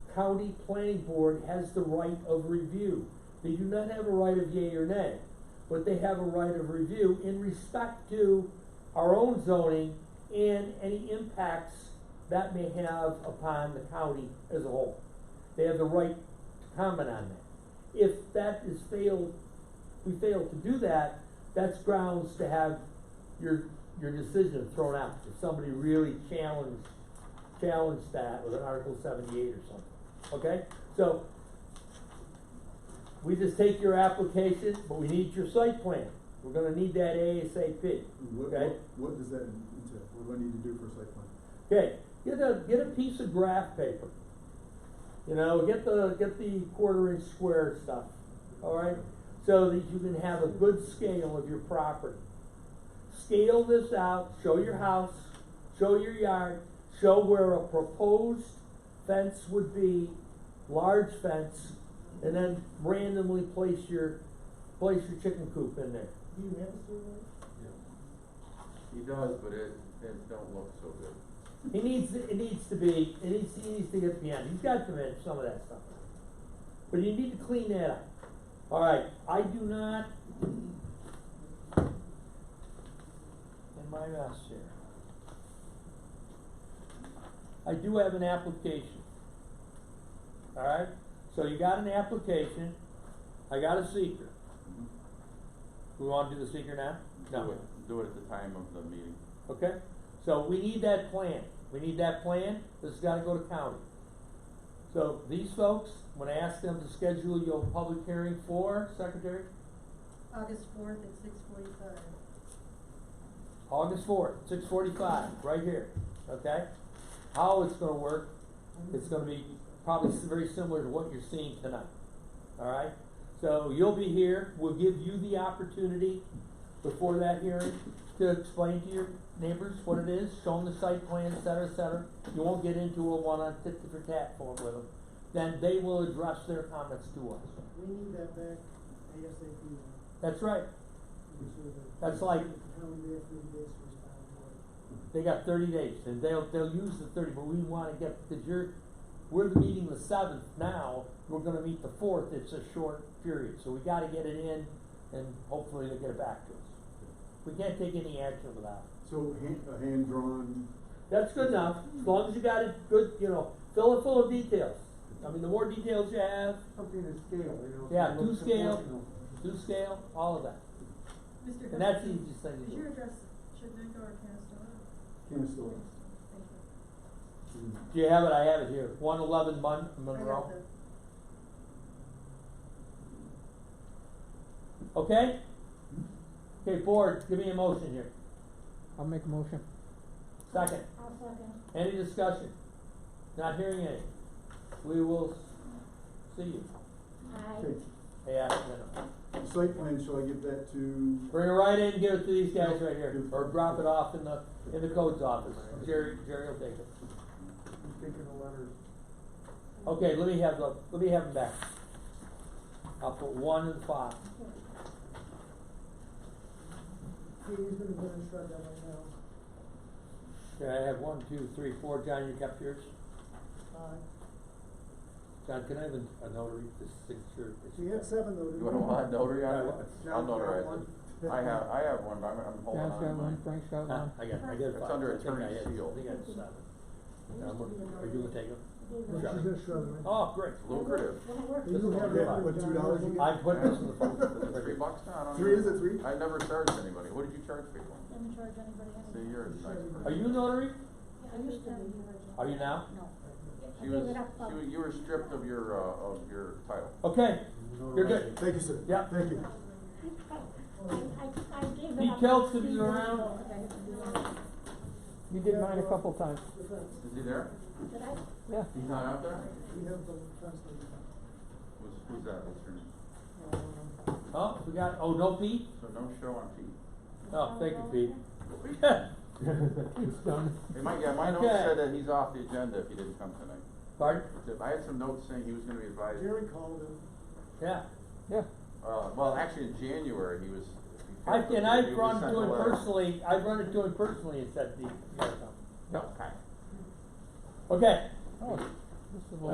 county planning board has the right of review. They do not have a right of yea or nay, but they have a right of review in respect to our own zoning and any impacts that may have upon the county as a whole. They have the right to comment on that. If that is failed, we fail to do that, that's grounds to have your, your decision thrown out. If somebody really challenged, challenged that with an Article seventy-eight or something, okay? So, we just take your application, but we need your site plan. We're gonna need that ASAP. What, Okay. what, what does that entail? What do I need to do for a site plan? Okay, get a, get a piece of graph paper. You know, get the, get the quarter inch square stuff, alright? So that you can have a good scale of your property. Scale this out, show your house, show your yard, show where a proposed fence would be, large fence, and then randomly place your, place your chicken coop in there. Do you have a survey? He does, but it, it don't look so good. He needs, it needs to be, it needs, he needs to get beyond, he's got to manage some of that stuff. But you need to clean that up. Alright, I do not. In my mess here. I do have an application. Alright, so you got an application, I got a seeker. We wanna do the seeker now? No. Do it, do it at the time of the meeting. Okay, so we need that plan, we need that plan, this has gotta go to county. So these folks, when I ask them to schedule your public hearing for, Secretary, August fourth at six forty-five. August fourth, six forty-five, right here, okay? How it's gonna work, it's gonna be probably s- very similar to what you're seeing tonight, alright? So you'll be here, we'll give you the opportunity before that hearing to explain to your neighbors what it is, show them the site plan, et cetera, et cetera. You won't get into a one-on tit for tat form with them, then they will address their comments to us. We need that back ASAP. That's right, the survey. That's like- How we may have three days to respond to it. they got thirty days, and they'll, they'll use the thirty, but we wanna get, cause you're, we're meeting the seventh now, we're gonna meet the fourth, it's a short period, so we gotta get it in, and hopefully they'll get it back to us. We can't take any action without it. So hand, a hand-drawn, That's good enough, as long as you got it good, you know, fill it full of details, I mean, the more details you have, Something to scale, you know. Yeah, something do that's scale. proportional. do scale, all of that, Mr. and that's the Gustafson, easiest thing to Is your do. address Shenango or Canastore? Canastore. Thank you. mm, Do you have it, I have it here, one eleven Mon- Monroe. I got the- Okay? Okay, board, give me a motion here. I'll make a motion. 2nd Any discussion? Not hearing any. We will s- see you. okay. Hey, I don't know. The site plan, shall I give that to? Bring it right in, give it to these guys right here, or drop it off in the, in the codes office. Jerry, Jerry will take it. I'm Thinking of letters. Okay, let me have the, let me have them back. I'll put one in the file. See, he's gonna go and shred that right now. Okay, I have one, two, three, four. John, you kept yours? Uh, John, can I have a a notary, this signature? so you had seven though, didn't You wanna want a notary on it? John, I'll John, notarize one. it. I have, I have one, but I'm, I'm holding on Dan's to mine. got one, Frank's got Huh? one. Ah, I got, I got It's five. under I think I attorney's had- seal. I think I had seven. And I'm gonna- Are you gonna take them? No, she's gonna shred them right now. Oh, great. It's lucrative. Do you have Yeah, that what, John two dollars you get? Rosen? I put this in the phone. It's three bucks now, I don't Three, know. is it three? I never charged anybody. What did you charge people? Didn't charge anybody anything. See, you're a nice person. Are you a notary? I used to be the original. Are you now? No. She was, she was, you were stripped of your, uh, of your title. Okay, you're good. Thank you, sir. Yeah. Thank you. I, I gave it He up. tells them you're around. You did mine a couple times. The fence. Is he there? Did I? Yeah. He's not out there? We have the fence right now. Who's, who's that? What's her name? Uh, Oh, we got, oh, no Pete? So no show on Pete. Oh, thank you, Pete. It's done. Hey, my, yeah, my notes Okay. said that he's off the agenda if he didn't come tonight. Pardon? I had some notes saying he was gonna be advised. Jerry called him. Yeah. Yeah. Uh, well, actually, in January, he was. I, and I've he was run sent to a him letter. personally, I've run it to him personally and said, the, you gotta come." Yep. Okay. Oh, this is a